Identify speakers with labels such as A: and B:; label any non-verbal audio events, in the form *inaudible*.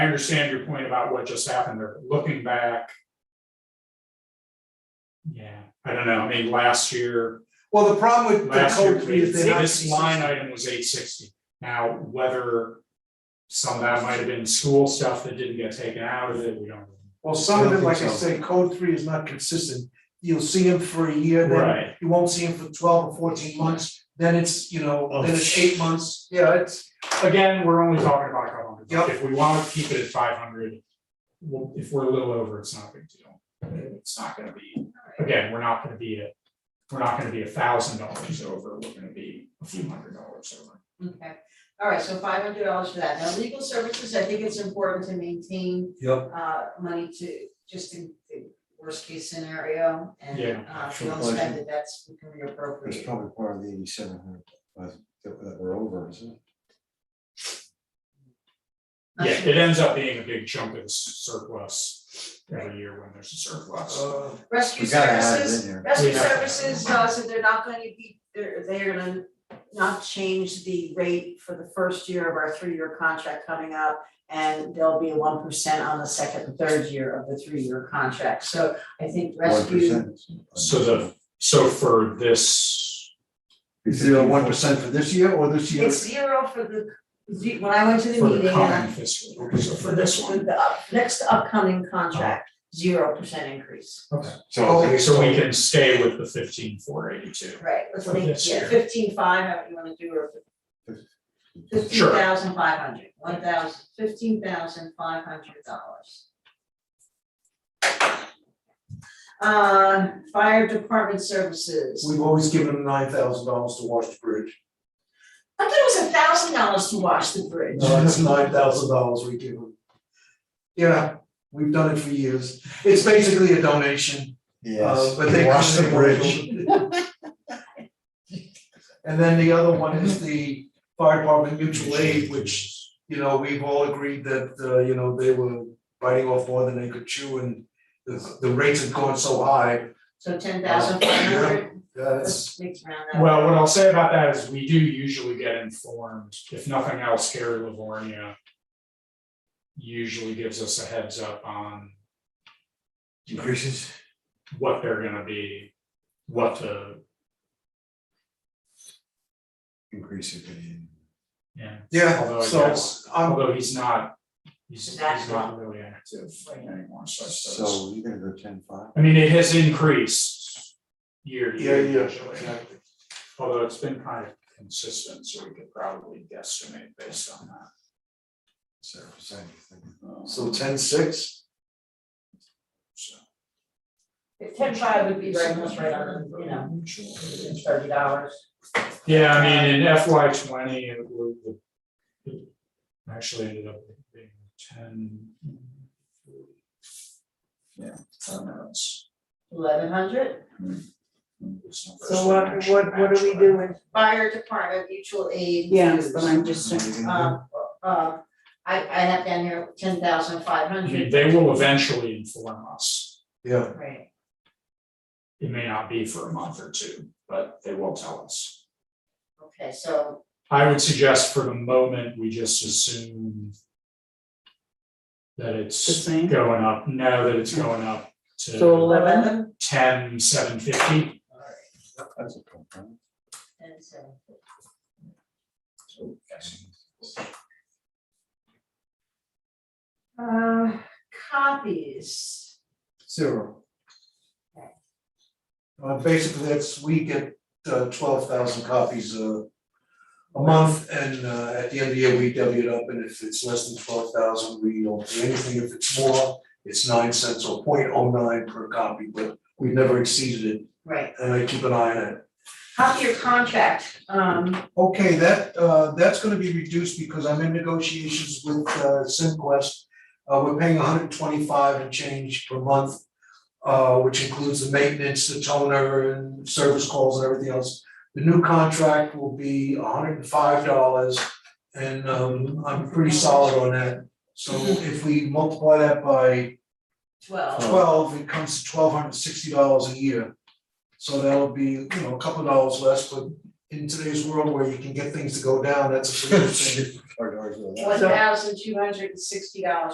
A: understand your point about what just happened, there. but looking back. Yeah, I don't know, I mean, last year,
B: Well, the problem with the
A: last year,
B: code three is they're not.
A: this line item was eight sixty. Now, whether some of that might have been school stuff that didn't get taken out of it, we don't.
B: Well, some of
C: I
B: it,
C: don't
B: like I
C: think so.
B: say, code three is not consistent. You'll see them for a year, then
A: Right,
B: you won't see them for twelve or fourteen months, then it's, you know,
C: Oh,
B: then it's
C: shit.
B: eight months. Yeah, it's,
A: again, we're only talking about a couple hundred, bucks.
B: Yep.
A: if we wanna keep it at five hundred. Well, if we're a little over, it's not a big deal, it's not gonna be, again, we're not gonna be at, we're not gonna be a thousand dollars over, we're gonna be a few hundred dollars over.
D: Okay, all right, so five hundred dollars for that. Now, legal services, I think it's important to maintain
C: Yep.
D: uh money to, just in the worst case scenario. And
A: Yeah,
D: uh if we
C: sure,
D: don't
C: pleasure.
D: spend it, that's we can reappropriate.
C: That's probably part of the eighty-seven hundred, that that we're over, isn't it?
D: Not
A: Yeah,
D: sure.
A: it ends up being a big chunk of the surplus every year when there's a surplus.
B: uh,
D: Rescue
C: We gotta add it in
D: services,
C: there.
D: rescue
A: We have to.
D: services, uh, so they're not gonna be, they're, they're gonna not change the rate for the first year of our three-year contract coming up. And there'll be one percent on the second and third year of the three-year contract, so I think rescue,
C: 1%.
A: So the, so for this,
C: Is there one percent for this year or this year?
D: it's zero for the, ze- when I went to the
A: for
D: meeting,
A: the
D: and I-
A: coming fiscal, year, so for this
D: for
A: one.
D: the up- next upcoming contract, zero percent increase.
C: So
A: Okay, so we can stay with the fifteen four eighty two.
D: Right, let's
A: For
D: make,
A: this
D: yeah,
A: year.
D: fifteen five, however you wanna do, or fifteen
A: Sure.
D: thousand five hundred, one thousand, fifteen thousand five hundred dollars. Uh, fire department services,
B: we've always given them nine thousand dollars to wash the bridge. *laughs*
D: I thought it was a thousand dollars to wash the bridge.
B: No, it's nine thousand dollars we give them. Yeah, we've done it for years. It's basically a donation, uh,
C: Yes.
B: but they.
C: Wash the bridge.
B: *laughs* And then the other one is the fire department mutual aid, which you know, we've all agreed that, uh, you know, they were biting off more than they could chew and the, the rates have gone so high,
D: So ten thousand five hundred,
B: that's,
D: let's mix around that.
A: Well, what I'll say about that is we do usually get informed, if nothing else, Gary Livornia usually gives us a heads up on
C: Increases.
A: what they're gonna be, what the,
C: Increases.
A: yeah, Although
B: yeah,
A: I
B: so,
A: guess-
B: um,
A: although he's not, he's he's not
D: Exactly.
A: really active anymore, so I suppose.
C: So you're gonna go ten five.
A: I mean, it has increased year to
B: yeah,
A: year
B: yeah,
A: usually, although it's been kind of consistent, so we could probably guesstimate based on that. Um,
B: So ten six,
A: so-
D: Ten five would be right, almost right on, the, you know, it's thirty dollars.
A: Yeah, I mean, in FY twenty, it was. it Actually ended up being ten. Yeah, I don't know, it's.
D: Eleven hundred,
A: it's not
E: So what, what, what are we doing?
D: fire department mutual aid. dues.
E: But I'm just,
D: Um, uh, I, I have down here ten thousand five
A: I mean,
D: hundred.
A: They will eventually inform us.
B: yeah,
D: Right.
A: It may not be for a month or two, but they will tell us.
D: Okay, so,
A: I would suggest for the moment, we just assume. That
E: The
A: it's
E: same?
A: going up, no, that it's going up
E: so
A: to
E: eleven,
D: eleven
A: ten, seven fifty.
C: That's
B: uh,
C: a problem.
D: and so, uh, copies.
C: Zero.
B: uh, basically, that's, we get, uh, twelve thousand copies a a month, and, uh, at the end of the year, we W it up, and if it's less than twelve thousand, we don't do anything, if it's more, it's nine cents or 0.09 per copy, but we've never exceeded it,
D: Right,
B: and I keep an eye on it.
D: copy your contract, um,
B: Okay, that, uh, that's gonna be reduced because I'm in negotiations with, uh, Simquest. Uh, we're paying hundred and twenty-five and change per month, uh, which includes the maintenance, the toner and service calls and everything else. The new contract will be hundred and five dollars and, um, I'm pretty solid on that. So if we multiply that by Oh,
D: twelve.
B: twelve, it comes to twelve hundred and sixty dollars a year. So that'll be, you know, a couple dollars less, but in today's world where you can get things to go down, that's a pretty good thing.
C: Or- or- or-
D: One thousand two hundred and sixty dollars